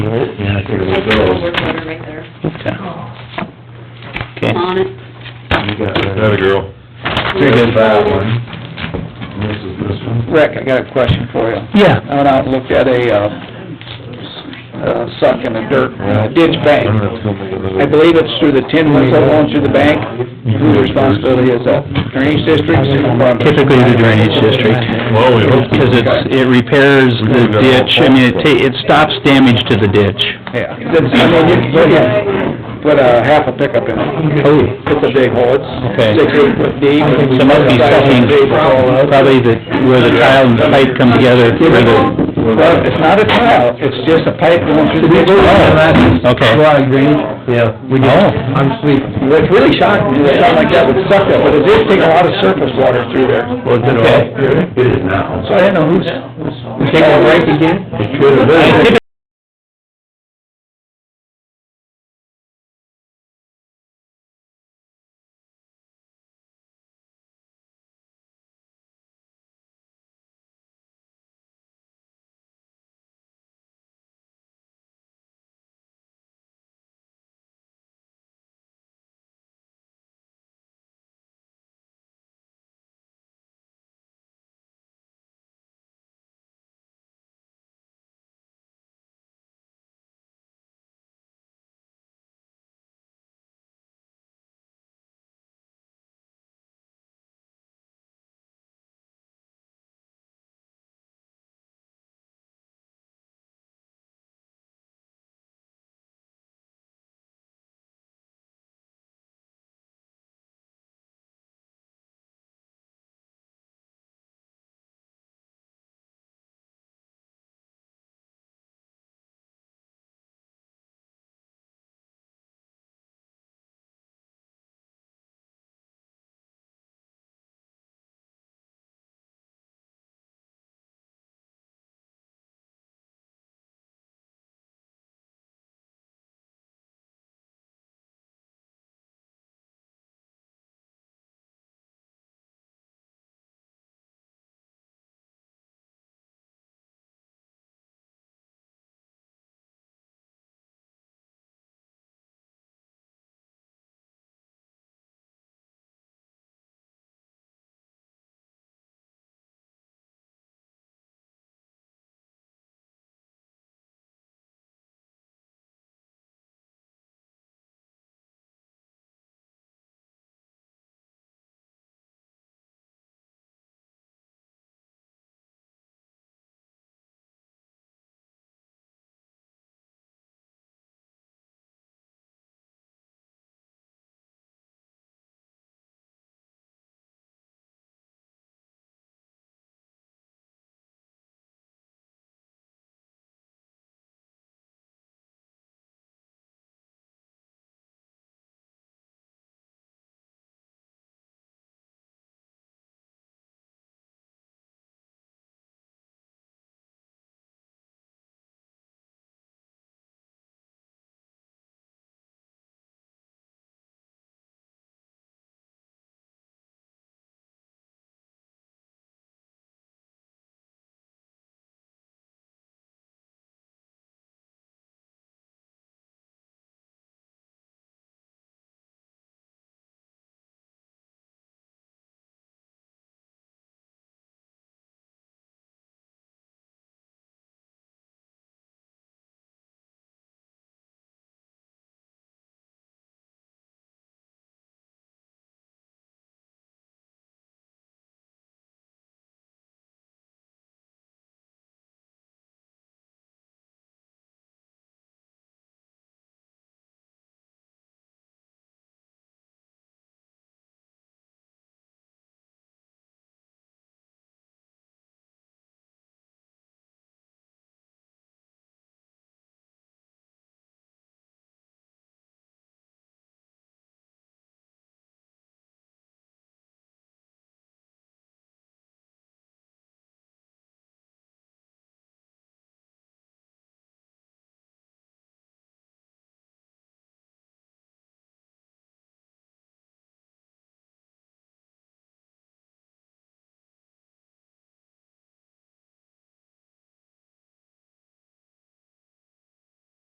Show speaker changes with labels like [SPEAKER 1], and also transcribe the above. [SPEAKER 1] right?
[SPEAKER 2] Yeah, I figured
[SPEAKER 3] That's
[SPEAKER 2] we'd
[SPEAKER 3] a little
[SPEAKER 2] go.
[SPEAKER 3] work order right there,
[SPEAKER 1] Okay. Okay,
[SPEAKER 3] on it.
[SPEAKER 2] You got
[SPEAKER 4] That a
[SPEAKER 2] that.
[SPEAKER 4] girl.
[SPEAKER 1] Very good.
[SPEAKER 2] That one. And This is this one.
[SPEAKER 5] Rick, I got a question for you.
[SPEAKER 1] Yeah.
[SPEAKER 5] I went out and looked at a, uh, uh, suck in the dirt, uh, ditch bank.
[SPEAKER 4] I'm not gonna make another-
[SPEAKER 5] I believe it's through the tin whistle going through the bank.
[SPEAKER 2] Mm-hmm.
[SPEAKER 5] Whose responsibility is that? Drainage district, city department?
[SPEAKER 1] typically the drainage district.
[SPEAKER 4] Well, we hope so.
[SPEAKER 1] Because it's, it repairs the ditch, I mean, it ta, it stops damage to the ditch.
[SPEAKER 5] Yeah, that's, I mean, you can put a- put a half a pickup in it.
[SPEAKER 1] Oh.
[SPEAKER 5] It's a big hole,
[SPEAKER 1] Okay.
[SPEAKER 5] it's six, eight foot deep.
[SPEAKER 1] So must be something, probably the, where the tile and the pipe come together, where the,
[SPEAKER 5] Well, it's not a tile, it's just a pipe going through the ditch.
[SPEAKER 1] okay.
[SPEAKER 5] Yeah.
[SPEAKER 1] Oh,
[SPEAKER 5] I'm sleeping. It's really shocking, that something like that would suck up, but it did take a lot of surface water through there.
[SPEAKER 2] Was it all? It is now.
[SPEAKER 5] So I didn't know who's, who's taking a break again?
[SPEAKER 2] It could have
[SPEAKER 1] I
[SPEAKER 2] been.